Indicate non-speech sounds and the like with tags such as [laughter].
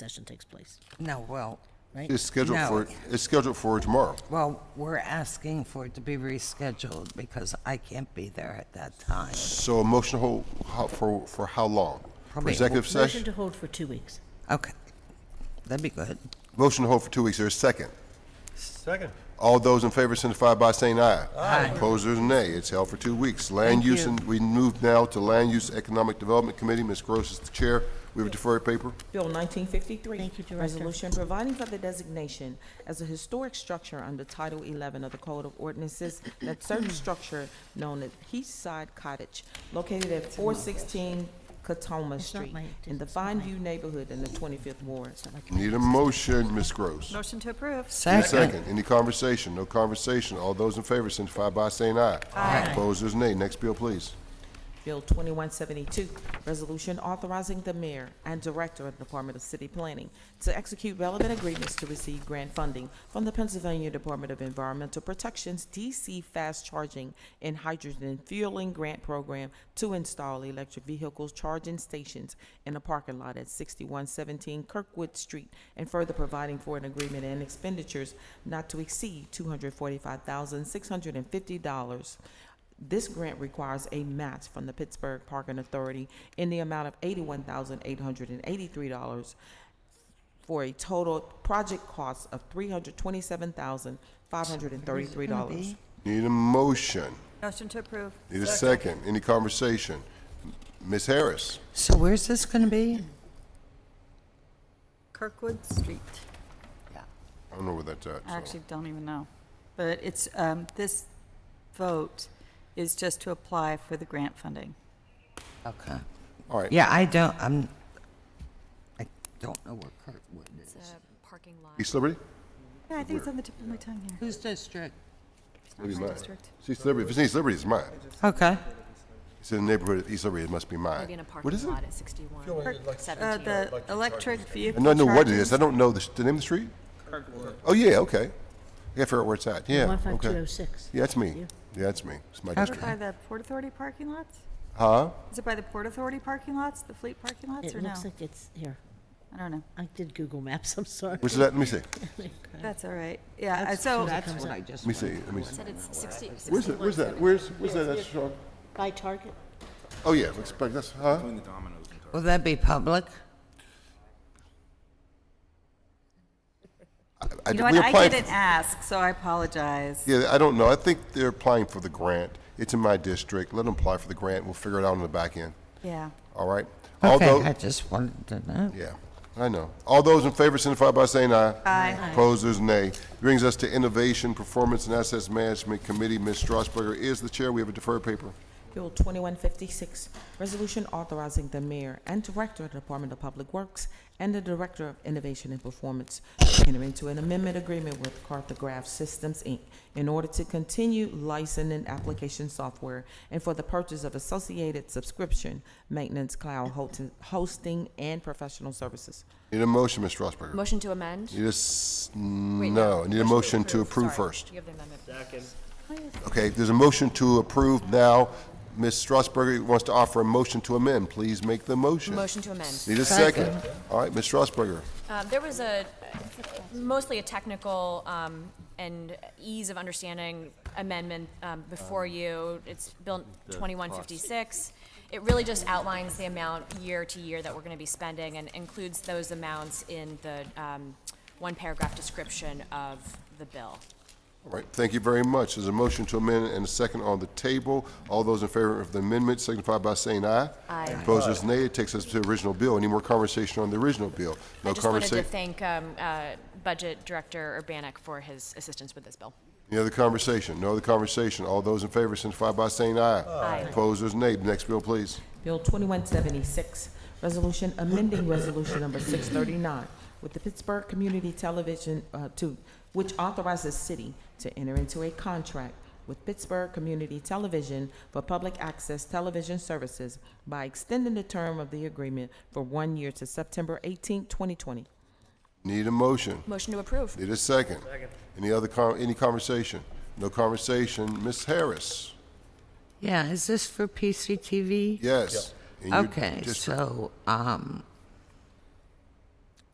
session takes place, No, well, right? It's scheduled No. for, it's scheduled for tomorrow. well, we're asking for it to be rescheduled because I can't be there at that time. So a motion to hold, how- for, for how long? For Probably- executive Motion session? to hold for two weeks. Okay, that'd be good. Motion to hold for two weeks, there's a second. Second. All those in favor signify by saying aye. Aye. Opposers, nay. It's held for two weeks. Land Thank you. use, and we move now to Land Use Economic Development Committee. Ms. Gross is the chair. We have a deferred paper. Bill 1953. Thank you, Director. Resolution providing for the designation as a historic structure under Title 11 of the Code of Ordinances [clears throat] that certain structure known as Eastside Cottage located at 416 Katoma It's not Street my- in the it's not Fine View neighborhood in the 25th Ward. Need a motion, Ms. Gross. Motion to approve. Need a second. Any conversation? No conversation. All those in favor signify by saying aye. Aye. Opposers, nay. Next bill, please. Bill 2172, resolution authorizing the mayor and director of the Department of City Planning to execute relevant agreements to receive grant funding from the Pennsylvania Department of Environmental Protection's DC Fast Charging and Hydrogen Fueling Grant Program to install electric vehicles charging stations in a parking lot at 6117 Kirkwood Street, and further providing for an agreement and expenditures not to exceed $245,650 this grant requires a match from the Pittsburgh Parking Authority in the amount of eighty-one thousand eight hundred and eighty-three dollars for a total project cost of three hundred twenty-seven thousand five hundred and thirty-three dollars. Need a motion. Motion to approve. Need a second. Any conversation? Ms. Harris? So where's this gonna be? Kirkwood Street. I don't know where that's at. I so. actually don't even know. But it's, um, this vote is just to apply for the grant funding. Okay. All right. Yeah, I don't, I'm, I don't know where Kurtwood is. parking lot. East Liberty? Yeah, I think it's on the tip of my tongue here. Whose district? It's not Maybe my mine. district. It's East Liberty. If it's East Liberty, it's mine. Okay, It's in the neighborhood of East Liberty. It must be mine. Maybe in a What parking is it? lot at 61, Uh, 17. the electric I vehicle know, I know what it charging is. I don't know the, sh- the name of the street. Oh, yeah, okay. I gotta figure out where it's at. Yeah, okay. 15206. Yeah, that's me. Yeah, that's me. It's my Is it district. by the Port Authority parking lots? Huh? Is it by the Port Authority parking lots, the fleet parking lots, or It no? looks like it's, here, I don't know. I did Google Maps, I'm sorry. uh, Where's it at? Let me see. [laughs] Let That's all right. Yeah, uh, so, that's what I just, me see. Let me see. Said it's 60, Where's it? Where's that? Where's, where's that? That's strong. By Target? Oh, yeah, looks like that's, huh? will that be public? I- you know we what, I applied didn't ask, so I apologize. Yeah, I don't know. I think they're applying for the grant. It's in my district. Let them apply for the grant. We'll figure it out on the back end. Yeah. All right? Okay, Although- I just wanted to know. Yeah, I know. All those in favor signify by saying aye. Aye. Opposers, nay. Brings us to Innovation, Performance, and Assets Management Committee. Ms. Strasburger is the chair. We have a deferred paper. Bill 2156, resolution authorizing the mayor and director of the Department of Public Works and the director of Innovation and Performance to enter into an amendment agreement with Cartograph Systems, Inc. in order to continue licensing application software and for the purchase of associated subscription, maintenance, cloud hosting- hosting, and professional services. Need a motion, Ms. Strasburger? Motion to amend? Need a, s- Wait, no, need a motion to approve Sorry. first. You have the amendment. Okay, there's a motion to approve now. Ms. Strasburger wants to offer a motion to amend. Please make the motion. Motion to amend. Need a second. All right, Ms. Strasburger. Um, There was a, mostly a technical um, and ease of understanding amendment um, before you. It's Bill 2156. It really just outlines the amount year to year that we're going to be spending and includes those amounts in the um, one paragraph description of the bill. All right, thank you very much. There's a motion to amend and a second on the table. All those in favor of the amendment signify by saying aye. Aye. Opposers, nay. It takes us to the original bill. Any more conversation on the original bill? I No just wanted to conversation. thank um, uh, Budget Director Urbanek for his assistance with this bill. Any other conversation? No other conversation. All those in favor signify by saying aye. Aye. Opposers, nay. Next bill, please. Bill 2176, resolution amending resolution number 639 with the Pittsburgh Community Television, uh, to, which authorizes city to enter into a contract with Pittsburgh Community Television for public access television services by extending the term of the agreement for one year to September 18, 2020. Need a motion. Motion to approve. Need a second. Any other, con- any conversation? No conversation. Ms. Harris? Yeah, is this for PCTV? Yes. And you Okay, just- so, um,